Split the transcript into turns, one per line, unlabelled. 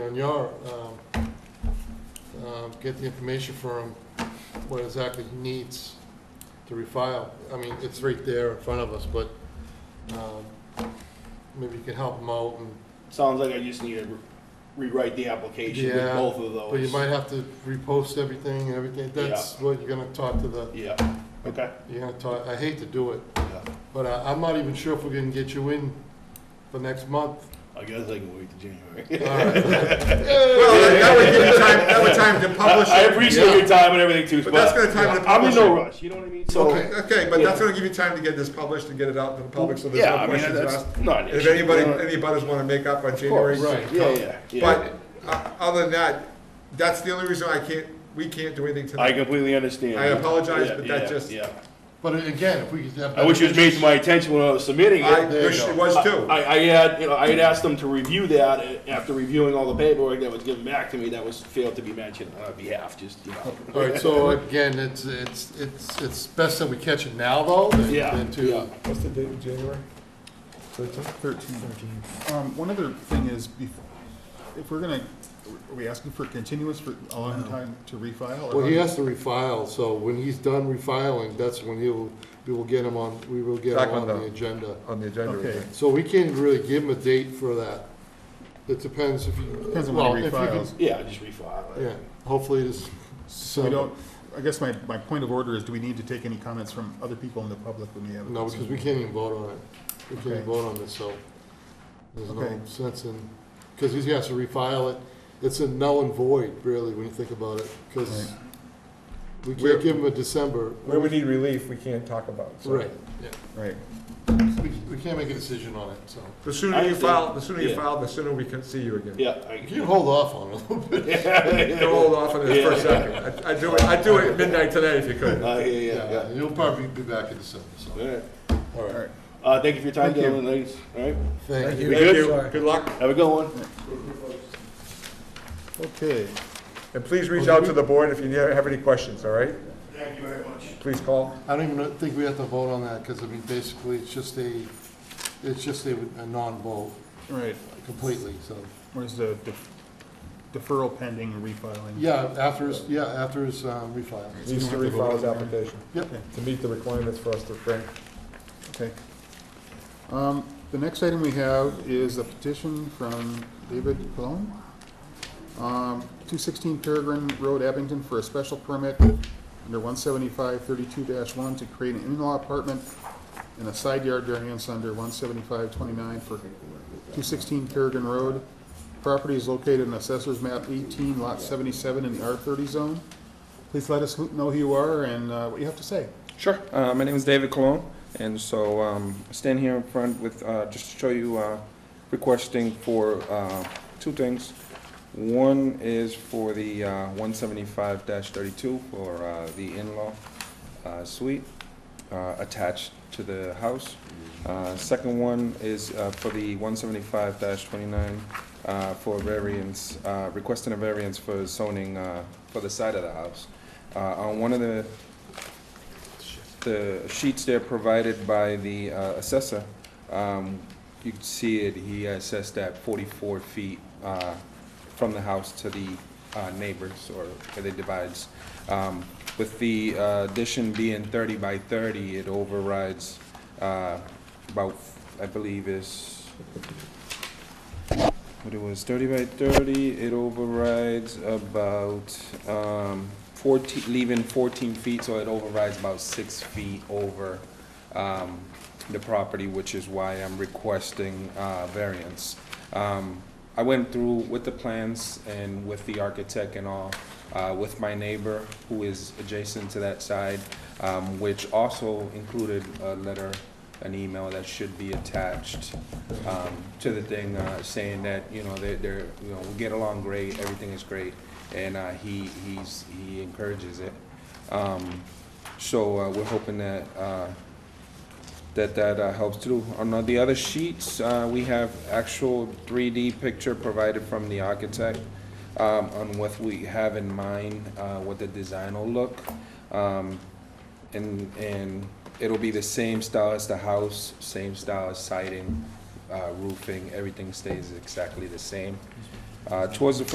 and Yara, um, um, get the information for him, what exactly he needs to refile. I mean, it's right there in front of us, but um, maybe you can help him out and
Sounds like I just need to re- rewrite the application with
Yeah,
both of those.
But you might have to repost everything and everything, that's what you're gonna talk to the,
Yeah, okay.
you're gonna talk, I hate to do it,
Yeah.
but I, I'm not even sure if we're gonna get you in for next month.
I guess I can wait till January.
All right.
Well, that- that would give you time, that would time to
I,
publish
I
it.
appreciate your time and everything too,
But
but,
that's gonna time to
I'm in no
publish
rush. You know what I mean? So,
Okay, okay, but that's gonna give you time to get this published and get it out to the public, so there's
yeah,
no
I mean
questions asked.
that's not. an
And If
issue,
anybody,
you know?
any butters wanna make up on
Of course.
January.
Right.
Yeah, yeah, yeah.
But, uh, other than that, that's the only reason I can't, we can't do anything
I
tonight.
completely understand.
I apologize,
Yeah,
but that
yeah,
just-
Yeah.
But again, if we could have.
I wish it was made to my attention when I was submitting it.
I
There you
wish
go.
it was too.
I, I had, you know, I had asked them to review that uh, after reviewing all the paperwork that was given back to me that was failed to be mentioned on our behalf, just, you know.
All right, so again, it's, it's, it's, it's best that we catch it now though, than
Yeah,
than
yeah.
to,
What's the date of January?
Thirteen. Um, one other thing is, bef- if we're gonna, are we asking for continuous for a long time to refile? or
well, he
how-
has to refile, so when he's done refiling, that's when he'll, we will get him on, we will get
Back
him on
on the-
the agenda.
On the agenda.
Okay.
right?
So we can't really give him a date for that. It depends if you.
Depends on when he
well, if you
refiles.
can-
Yeah, just refile it.
Yeah, hopefully this,
So we don't, I guess my, my point of order is, do we need to take any comments from other people in the public when we have? a
no, because we can't even vote on it. We can't even
Okay.
vote on this, so there's
Okay.
no sense in, because he has to refile it. It's a null and void, really, when you think about it, because we
Where-
can't give him a December.
Where we need relief, we can't talk about. so.
Right, yeah.
Right,
We, we can't make a decision on it, so.
The sooner you file, the sooner you
Yeah.
file, the sooner we can see you again.
Yeah. I-
You can hold off on it a little bit.
They're all off on this for a second. I- I'd do it, I'd do it at midnight tonight if you could.
Uh, yeah, yeah, yeah.
Yeah, you'll probably be back in December, so.
All right.
All
all
right,
right.
Uh, thank you for your time,
Thank you.
gentlemen, ladies. All right.
thank you.
We good?
Good luck,
Have a good one.
Okay,
and please reach out to the board if you have any questions, all right?
Thank you very much.
Please call.
I don't even think we have to vote on that, because I mean, basically, it's just a, it's just a, a non-vote
all right,
completely, so.
where's the def- deferral pending refiling?
Yeah, after his, yeah, after his um, refile.
Needs to
You don't have to
refile his
vote on there.
application
Yep,
to meet the requirements for us to bring.
Okay. Um, the next item we have is a petition from David Colon. Um, two sixteen Peregrine Road, Abington, for a special permit under one seventy-five thirty-two one to create an in-law apartment and a side yard variance under one seventy-five twenty-nine for two sixteen Peregrine Road. Property is located in Assessor's Map eighteen, Lot seventy-seven in the R thirty zone. Please let us know who you are and, uh, what you have to say.
Sure. Uh, my name is David Colon, and so um, I stand here in front with uh, just to show you uh, requesting for uh, two things. One is for the uh, 175-32 for uh, the in-law uh, suite uh, attached to the house. Uh, second one is uh, for the 175-29 uh, for variance, uh, requesting a variance for zoning uh, for the side of the house. Uh, on one of the the sheets there provided by the uh, assessor, um, you can see it, he assessed that forty-four feet uh, from the house to the uh, neighbors or where they divides. Um, With the uh, addition being thirty by thirty, it overrides uh, about, I believe is, what it was, thirty by thirty, it overrides about, um, fourteen, leaving fourteen feet, so it overrides about six feet over, um, the property, which is why I'm requesting, uh, variance. Um, I went through with the plans and with the architect and all, uh, with my neighbor who is adjacent to that side, um, which also included a letter, an email that should be attached, um, to the thing, uh, saying that, you know, they're, they're, you know, we get along great, everything is great, and, uh, he, he's, he encourages it. Um, so, uh, we're hoping that, uh, that that uh, helps too. On the other sheets, uh, we have actual 3D picture provided from the architect um, on what we have in mind, uh, what the design will look. Um, And, and it'll be the same style as the house, same style as siding, uh, roofing, everything stays exactly the same. Uh, Towards the front